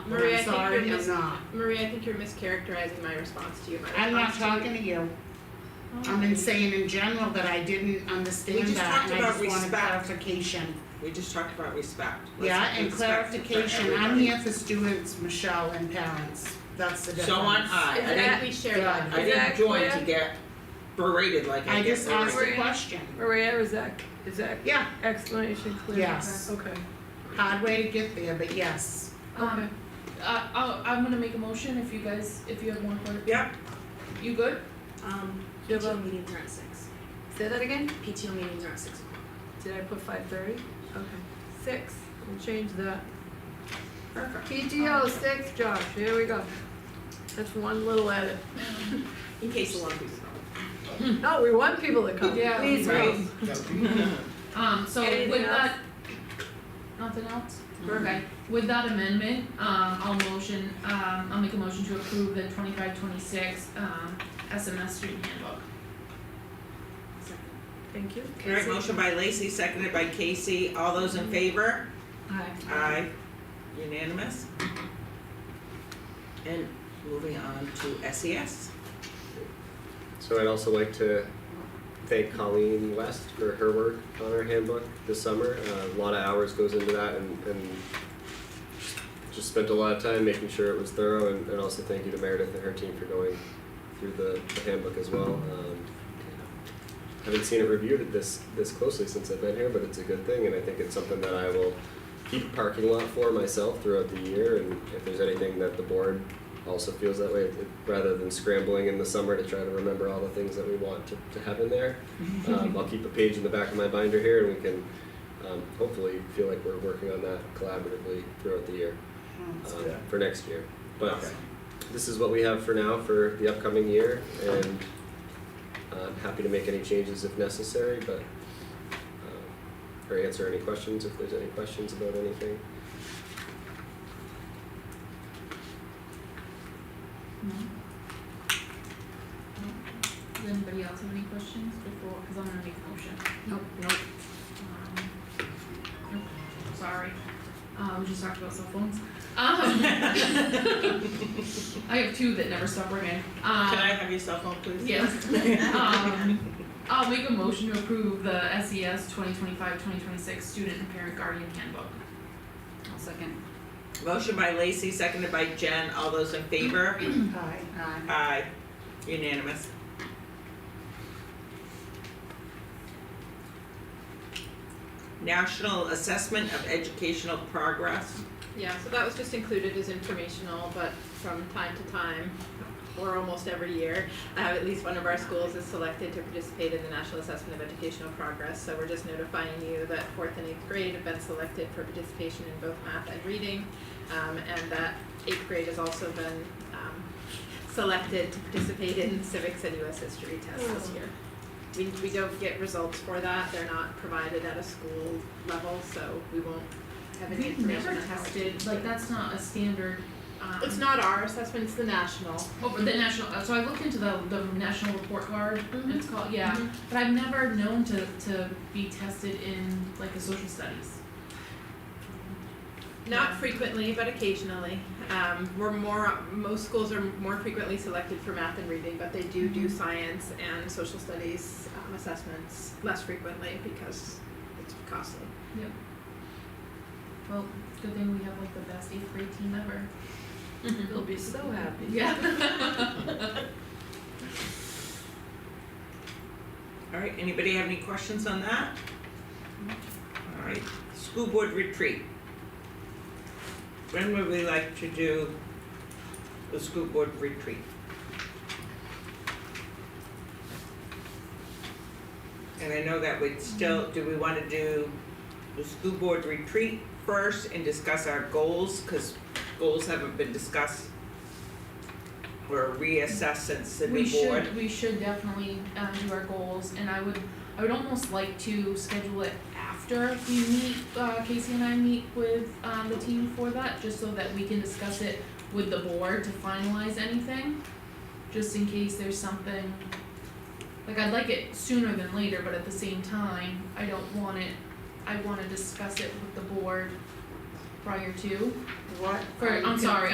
And Maria, I I'm think sorry, you're I'm mis- not. Maria, I think you're mischaracterizing my response to you. My I'm not response to you- talking to you. I'm in saying in general that I didn't We understand just that and I just talked about want respect. clarification. We just talked about respect. Let's Yeah, and respect for clarification, I'm everybody. here for students, Michelle, and parents. That's the difference. So on I, I didn't, Exactly, share that. God. I Is that didn't join to clear? get berated like I I get just asked berated. a question. Maria, is that, is that Yeah, explanation clear? Yes. Okay. hard way to get there, but yes. Um, uh, I'll, I'm gonna make a motion if you guys, if you have more for. Yep. You good? Um, Do you have a- PTO meetings are at six. Say that again? PTO meetings are at six o'clock. Did I put five thirty? Okay. Six, we'll change that. Perfect. PTO six, Josh, here we go. That's one little edit. In case a lot of people don't. No, we want people to come, Yeah. please come. Um, so Anything with else? that. Nothing else? Okay, with that amendment, um, I'll motion, um, I'll make a motion to approve the twenty-five, twenty-six, um, SMS student handbook. Thank you. Alright, motion by Lacey, seconded by Casey, all those in favor? Aye. Aye. Unanimous? And moving on to E SES. So I'd also like to thank Colleen West for her work on our handbook this summer. Uh, a lot of hours goes into that and, and just spent a lot of time making sure it was thorough and, and also thank you to Meredith and her team for going through the, the handbook as well. Um, haven't seen it reviewed this this closely since I've been here, but it's a good thing and I think it's something that I will keep a parking lot for myself throughout the year and if there's anything that the board also feels that way, it- rather than scrambling in the summer to try to remember all the things that we want to, to have in there. Um, I'll keep a page in the back of my binder here and we can um, hopefully feel like we're working on that collaboratively throughout the year um, for next year. But Okay. this is what we have for now for the upcoming year and I'm happy to make any changes if necessary, but um, or answer any questions if there's any questions about anything. No? No? Does anybody else have any questions before, cause I'm gonna make a motion. Nope, nope. Um, nope, sorry, uh, we just talked about cell phones. Um, I have two that never stop ringing. Uh, Can I Um, have your cell phone, please? yes. Um, I'll make a motion to approve the E SES 2025-2026 Student and Parent Guardian Handbook. I'll second. Motion by Lacey, seconded by Jen, all those in favor? Aye. Aye. Aye. Unanimous. National Assessment of Educational Progress. Yeah, so that was just included as informational, but from time to time, or almost every year, uh, at least one of our schools is selected to participate in the National Assessment of Educational Progress. So we're just notifying you that fourth and eighth grade have been selected for participation in both math and reading, um, and that eighth grade has also been um, selected to participate in civics and U.S. history tests this Hmm. year. We, we don't get results for that. They're not provided at a school level, so we won't have any We've information never on how it tested, like, that's not a standard, um. it's not our assessment, it's the national. Over the national, uh, so I looked into the, the national report card, Mhm. it's called, yeah, Mhm. but I've never known to, to be tested in like a social studies. Not frequently, but occasionally. Um, we're more, most schools are more frequently selected for math and reading, but they do do science and social studies um, assessments less frequently because it's costly. Well, good thing we have like the best eighth grade team ever. Mm-hmm. They'll be so happy. Yeah. Alright, anybody have any questions on that? Alright, school board retreat. When would we like to do the school board retreat? And I know that we'd still, do we wanna do the school board retreat first and discuss our goals, cause goals haven't been discussed or reassessed since the We new board. should, we should definitely, um, do our goals, and I would, I would almost like to schedule it after we meet, uh, Casey and I meet with, um, the team for that, just so that we can discuss it with the board to finalize anything, just in case there's something, like, I'd like it sooner than later, but at the same time, I don't want it, I wanna discuss it with the board prior to, What? or, I'm sorry,